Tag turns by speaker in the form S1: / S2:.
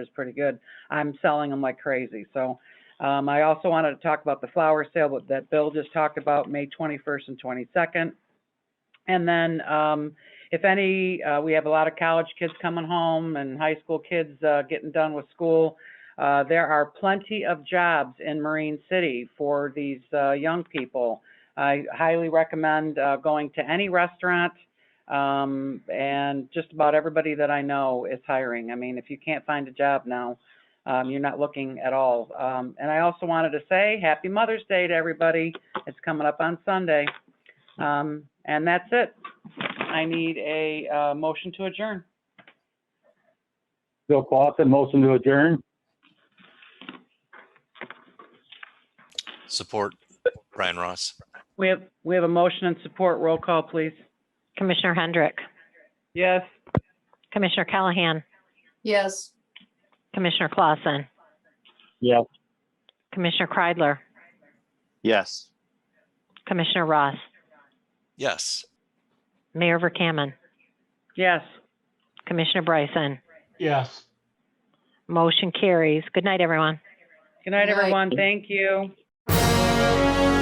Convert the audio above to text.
S1: is pretty good. I'm selling them like crazy, so. Um, I also wanted to talk about the flower sale but that Bill just talked about, May twenty-first and twenty-second. And then, um, if any, uh, we have a lot of college kids coming home and high school kids, uh, getting done with school. Uh, there are plenty of jobs in Marine City for these, uh, young people. I highly recommend, uh, going to any restaurant, um, and just about everybody that I know is hiring. I mean, if you can't find a job now, um, you're not looking at all. Um, and I also wanted to say, happy Mother's Day to everybody. It's coming up on Sunday. Um, and that's it. I need a, uh, motion to adjourn.
S2: Bill Clausen, motion to adjourn.
S3: Support Brian Ross.
S1: We have, we have a motion and support. Roll call, please.
S4: Commissioner Hendrick,
S1: Yes.
S4: Commissioner Callahan,
S5: Yes.
S4: Commissioner Clausen,
S2: Yes.
S4: Commissioner Kreidler,
S6: Yes.
S4: Commissioner Ross,
S3: Yes.
S4: Mayor Verkaman,
S1: Yes.
S4: Commissioner Bryson. Yes. Motion carries. Good night, everyone.
S1: Good night,
S5: Good night.
S1: everyone. Thank you.